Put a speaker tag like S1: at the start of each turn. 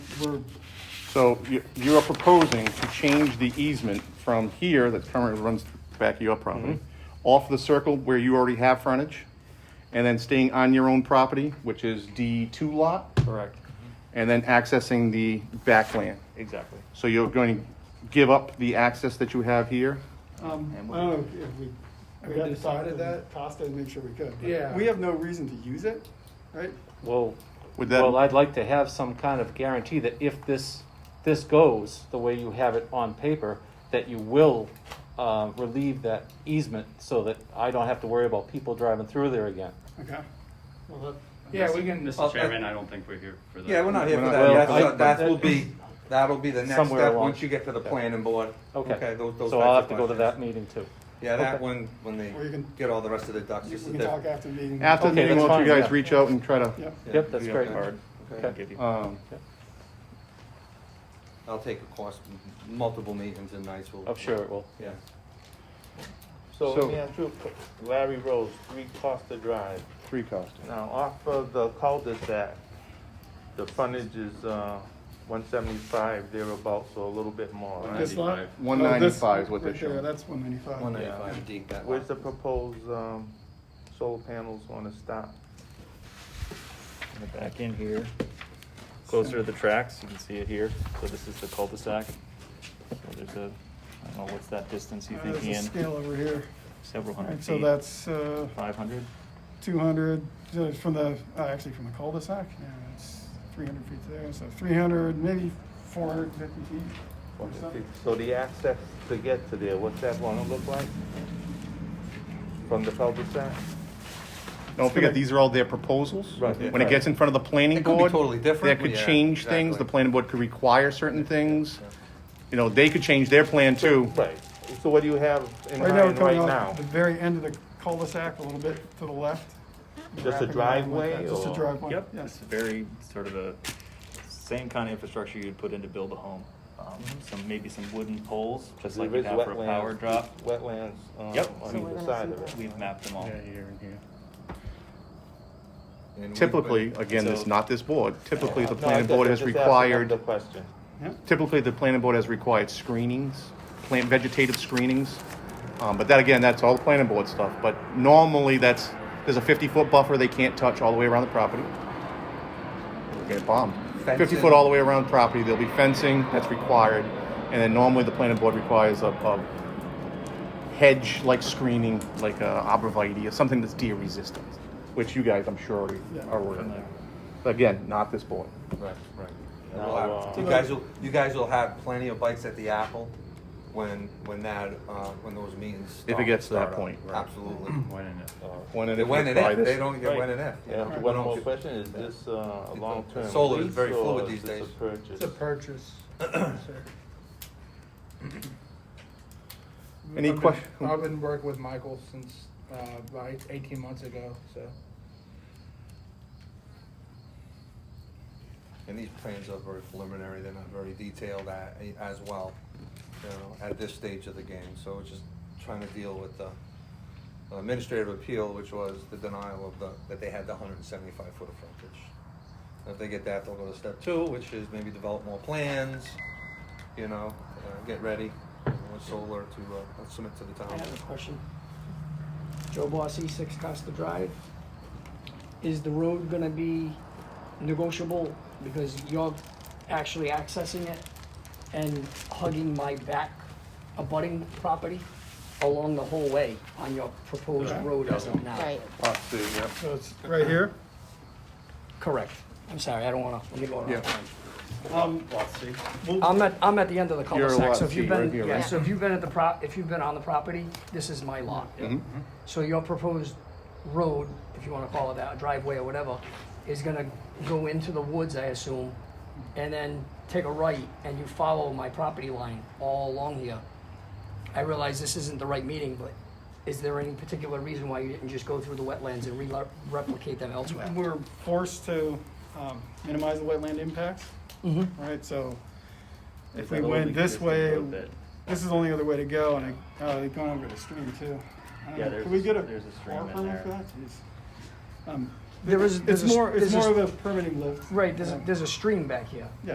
S1: we're,
S2: So you, you are proposing to change the easement from here that currently runs back your property,
S1: Mm-hmm.
S2: off the circle where you already have frontage, and then staying on your own property, which is D two lot,
S3: Correct,
S2: and then accessing the backland.
S3: exactly.
S2: So you're going to give up the access that you have here?
S1: um,
S4: And
S1: I
S4: we-
S1: don't know if we.
S5: Have
S1: we'd
S5: we
S1: have to talk
S5: decided
S1: to
S5: that?
S1: Costa and make sure we could. but
S5: Yeah.
S1: We have no reason to use it, right?
S3: Well,
S2: Would that-
S3: well, I'd like to have some kind of guarantee that if this, this goes the way you have it on paper, that you will uh, relieve that easement so that I don't have to worry about people driving through there again.
S1: Okay.
S6: Well,
S5: Yeah, we can.
S6: Mr. Chairman, I don't think we're here for that.
S4: Yeah, we're not here
S2: We're not-
S4: for that.
S3: Well,
S4: That's-
S3: I-
S4: That will be, that'll be the next
S3: Somewhere
S4: step,
S3: along.
S4: once you get to the planning board.
S3: Okay,
S4: those- those
S3: so I'll have
S4: types
S3: to
S4: of
S3: go to
S4: questions.
S3: that meeting too.
S4: Yeah, that
S3: Okay.
S4: one, when they
S1: Or you can-
S4: get all the rest of the ducks,
S1: You
S4: just a
S1: can talk
S4: different.
S1: after the meeting. Oh,
S2: After the
S3: Okay,
S2: meeting,
S3: that's
S2: why don't you
S3: fine,
S2: guys
S3: yeah.
S2: reach out and try to,
S1: Yep.
S3: Yep, that's
S4: Yeah,
S3: great.
S4: okay.
S3: Okay.
S4: Okay.
S2: um,
S4: I'll take a course, m- multiple meetings and nights will.
S3: I'm Oh, sure it will.
S4: Yeah.
S7: So
S2: So-
S7: let me ask you, a que- Larry Rose, three Costa Drive.
S2: three cost.
S7: Now, off of the cul-de-sac, the frontage is, uh, one seventy-five thereabouts, so a little bit more, right?
S1: This lot?
S6: 195.
S1: Oh, this
S2: 195 is what
S1: right
S2: they're
S1: there,
S2: showing.
S1: That's one ninety-five.
S4: One ninety-five, dig that.
S7: Where's the
S4: lot.
S7: proposed, um, solar panels gonna stop?
S8: Back in here, closer
S1: Uh,
S8: to the tracks, you can see it here, so this is the cul-de-sac. So There's a, I don't know, what's that distance you
S1: Uh,
S8: think,
S1: There's a scale
S8: Ian?
S1: over here.
S8: Several hundred
S1: Alright,
S8: feet?
S1: So that's, uh,
S8: Five hundred?
S1: two hundred, from the, uh, actually from the cul-de-sac, yeah, it's three hundred feet there, so three hundred, maybe four hundred fifty feet or something.
S7: So the access to get to there, what's that gonna look like? From the cul-de-sac?
S2: Don't forget, these are all their proposals.
S7: Right, yeah.
S2: When it gets in front of the planning
S4: It could be
S2: board.
S4: totally different.
S2: That could
S4: Yeah,
S2: change things, the
S4: exactly.
S2: planning board could require certain things. You know, they could change their plan too.
S7: Right, so what do you have in
S1: Right now, we're
S7: mind
S1: coming
S7: right
S1: off
S7: now?
S1: the very end of the cul-de-sac, a little bit to the left.
S7: Just a
S1: Wrapping around like
S7: driveway
S1: that, Just a
S7: or-
S1: driveway,
S8: Yep,
S1: yes.
S8: it's very sort of a, same kind of infrastructure you'd put in to build a home. Um, Some, maybe some wooden poles, just like
S7: There
S8: you'd
S7: is
S8: have for a power
S7: wetlands-
S8: drop.
S7: Wetlands, um,
S8: Yep.
S7: on
S8: So
S9: we're
S7: either
S9: gonna
S7: side
S9: see
S7: of
S9: that.
S7: it.
S8: We've mapped them all.
S2: Yeah, here and here.
S4: And we've
S2: Typically,
S4: been-
S2: again, it's
S8: So-
S2: not this board, typically the
S7: No,
S2: planning
S7: I'm
S2: board
S7: just-
S2: has
S7: I'm just asking
S2: required,
S7: The question.
S2: typically the planning board has required screenings, plant vegetative screenings. Um, but that again, that's all the planning board stuff, but normally that's, there's a fifty-foot buffer they can't touch all the way around the property. They Get bombed. Fifty
S4: Fencing.
S2: foot all the way around property, there'll be fencing, that's required, and then normally the planning board requires a, a hedge-like screening, like a arborvitae or something that's deer resistant, which you guys, I'm sure, already are aware of. Again, not this board.
S4: Right, right.
S7: Now,
S4: We'll have-
S7: uh,
S4: You guys will, you guys will have plenty of bites at the apple when, when that, uh, when those meetings.
S2: If it
S4: start-
S2: gets to that
S4: start up.
S2: point, right.
S4: Absolutely.
S8: Why didn't it?
S2: When and
S4: They
S2: if
S4: win
S2: we
S4: it
S2: buy
S4: if,
S2: this-
S4: they don't get
S8: Right.
S4: one and if. you
S7: And
S4: know,
S7: one
S4: don't
S7: more
S4: get-
S7: question, is this uh, a long-term
S4: Solar is
S7: lease
S4: very
S7: or
S4: fluid
S7: is
S4: these
S7: this a
S4: days.
S7: purchase?
S5: It's a purchase.
S2: Any
S5: I've been-
S2: question-
S5: I've been working with Michael since, uh, about eighteen months ago, so.
S4: And these plans are very preliminary, they're not very detailed a- as well, you know, at this stage of the game. So we're just trying to deal with the uh, administrative appeal, which was the denial of the, that they had the hundred and seventy-five foot of frontage. If they get that, they'll go to step two, which is maybe develop more plans, you know, uh, get ready with solar to uh, submit to the town.
S9: I have a question. Joe Bossy, Six Costa Drive. Is the road gonna be negotiable because you're actually accessing it and hugging my back abutting property along the whole way on your proposed road as of now?
S10: Right.
S2: Lot two, yeah.
S1: So it's right here.
S9: Correct. I'm sorry, I don't wanna, let me go on.
S2: Yeah.
S1: Um,
S9: I'm at, I'm at the end of the
S2: You're a
S9: cul-de-sac,
S2: lot
S9: so if you've
S2: deep right
S9: been,
S2: here,
S9: yeah,
S2: right?
S9: so if you've been at the pro, if you've been on the property, this is my lot.
S2: Mm-hmm.
S9: So your proposed road, if you wanna call it that, driveway or whatever, is gonna go into the woods, I assume, and then take a right, and you follow my property line all along here. I realize this isn't the right meeting, but is there any particular reason why you didn't just go through the wetlands and re- replicate them elsewhere?
S1: we're forced to um, minimize the wetland impacts.
S9: Mm-hmm.
S1: Right, so if we went this way, this is the only other way to go, and I, uh, they've gone over the stream too. I don't
S8: Yeah,
S1: know,
S8: there's-
S1: Can we get a
S8: there's a stream
S1: car
S8: in
S1: permit for
S8: there.
S1: that? Jeez. Um,
S9: There is-
S1: It's
S9: there's a-
S1: more, it's
S9: there's a-
S1: more of a permitting lift.
S9: Right, there's, a-
S1: Um,
S9: there's a stream back here.